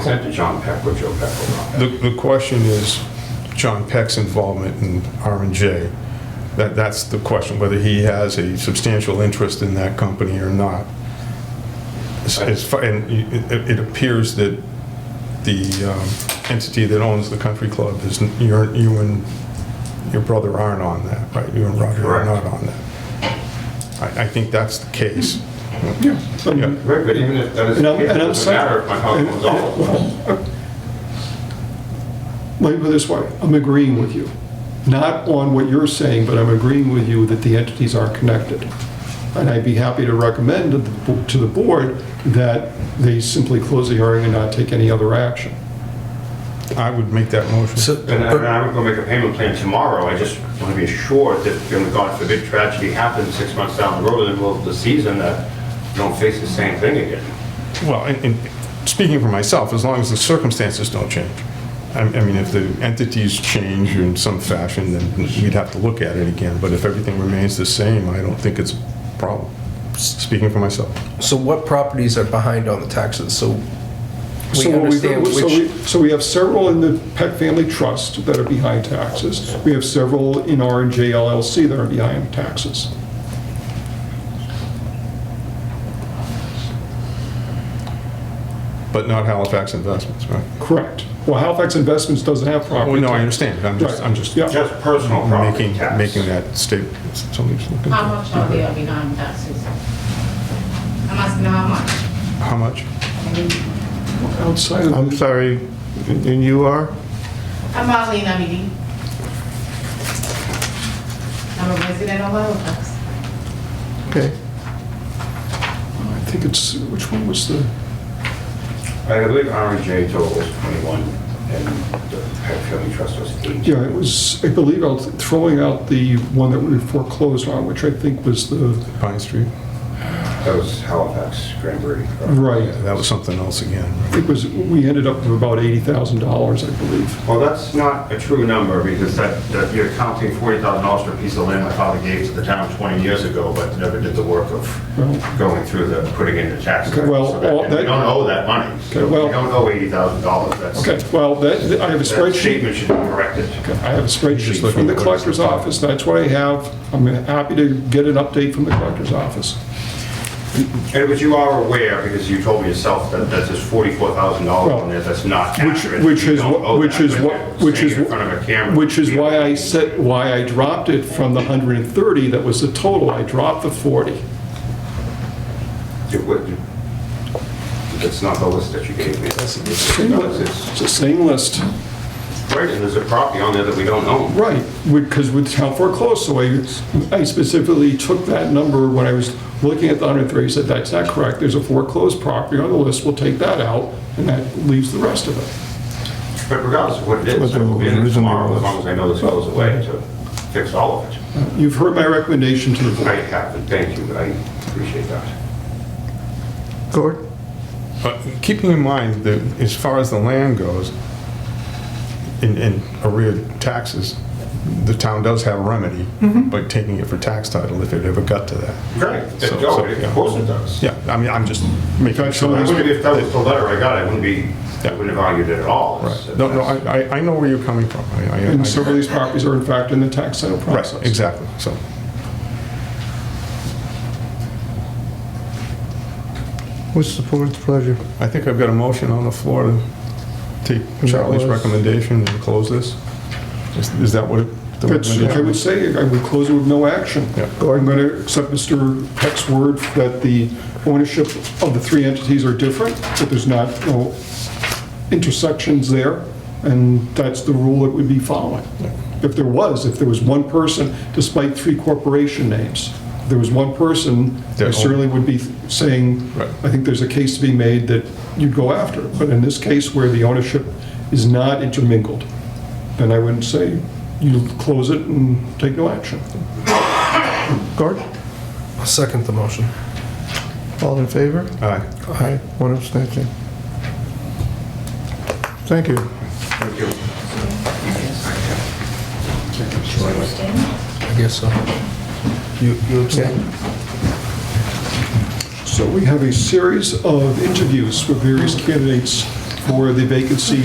Sent to John Peck with Joe Peck. wrote on The, the question is John Peck's involvement in R and J. That, that's the question, whether he has a substantial interest in that company or not. It's- it's fi- and you- it, it appears that the um, entity that owns the country club is, n- you're, you and your brother aren't on that, right? You and Roger Correct. are not on that. I, I think that's the case. Yeah. that. Right, but even if that is, And I'm- it and I'm doesn't sorry. matter if my house was all. Let me put it this way, I'm agreeing with you. Not on what you're saying, but I'm agreeing with you that the entities aren't connected. And I'd be happy to recommend to the- to the board that they simply close the hearing and not take any other action. I would make that motion. So, And I- and I'm gonna make a payment plan tomorrow, I just wanna be assured that, you know, God forbid tragedy happens six months down the road in the middle of the season, that you don't face the same thing again. Well, and, and speaking for myself, as long as the circumstances don't change. I, I mean, if the entities change in some fashion, then we'd have to look at it again. But if everything remains the same, I don't think it's a problem, S- speaking for myself. so what properties are behind on the taxes? So So we what we've- understand so we- which, So we have several in the Peck Family Trust that are behind taxes. We have several in R and J LLC that are behind taxes. But not Halifax Investments, right? Correct. Well, Halifax Investments doesn't have property. Well, Oh, no, I understand. I'm just, I'm just Right, yeah. Just personal property making, tax. making that statement. Somebody's looking. How much are they behind taxes? I'm asking how much. How much? Outside of, I'm sorry, and you are? I'm Marlene Abidi. I'm a resident of Halifax. Okay. I think it's, which one was the? I believe R and J total was 21, and the Peck Family Trust was 18. Yeah, it was, I believe, out- throwing out the one that we foreclosed on, which I think was the, Pine Street? That was Halifax, Granbury. right, That was something else again, I right? think was, we ended up with about $80,000, I believe. Well, that's not a true number, because that, that you're counting $40,000 for a piece of land my father gave to the town 20 years ago, but never did the work of Right. going through the, putting in the tax. Okay, well, So that- all and We that- don't owe that money. So Okay, We well- don't owe $80,000, that's. Okay, well, that, I have That a spreadsheet, statement should be corrected. I have a Just spreadsheet looking from the at what collector's it's- office, that's what I have. I'm happy to get an update from the collector's office. And but you are aware, because you told me yourself, that that's just $44,000 on there, that's not Which, accurate. which You is, don't wh- owe which that, is but what, you're which is, saying In front of a camera. which is why I said, why I dropped it from the 130 that was the total, I dropped the 40. It would- That's not the list that you gave me. Same That was list. it. It's the same list. Right, and there's a property on there that we don't own. Right, because with town foreclosed, so I I specifically took that number when I was looking at the 103, said, that's not correct, there's a foreclosed property on the list, we'll take that out, and that leaves the rest of it. But regardless of what it is, But I will be in it originally tomorrow, as was- long as I know this goes away to fix all of it. You've heard my recommendation to the I board. have, and thank you, I appreciate that. Gord? But keeping in mind that as far as the land goes, in, in arrear taxes, the town does have a remedy Mm-hmm. by taking it for tax title if it ever got to that. Right, So- that- oh, so, of yeah. course it does. Yeah, I mean, I'm just making I sure. wouldn't have, if that was the letter I got, I wouldn't be, I Yeah. wouldn't have argued it at all. It's- Right. No, no, I, I- I know where you're coming from. I- I- And I- several of these properties are in fact in the tax sale process. Right, exactly, so. What's the board's pleasure? I think I've got a motion on the floor to take Charlie's was- recommendation and close this. Is is that what? it- the That's, I recommendation would was? say, I would close it with no action. Yeah. I'm going to accept Mr. Peck's word that the ownership of the three entities are different, that there's not, no intersections there, and that's the rule that we'd be following. If there was, if there was one person, despite three corporation names, if there was one person, That I own- certainly would be saying, Right. I think there's a case to be made that you'd go after. But in this case where the ownership is not intermingled, then I wouldn't say you close it and take no action. Gord? I'll second the motion. All in favor? Aye. Aye. One abstention. Thank you. I guess so. You, you abstain? So we have a series of interviews with various candidates for the vacancy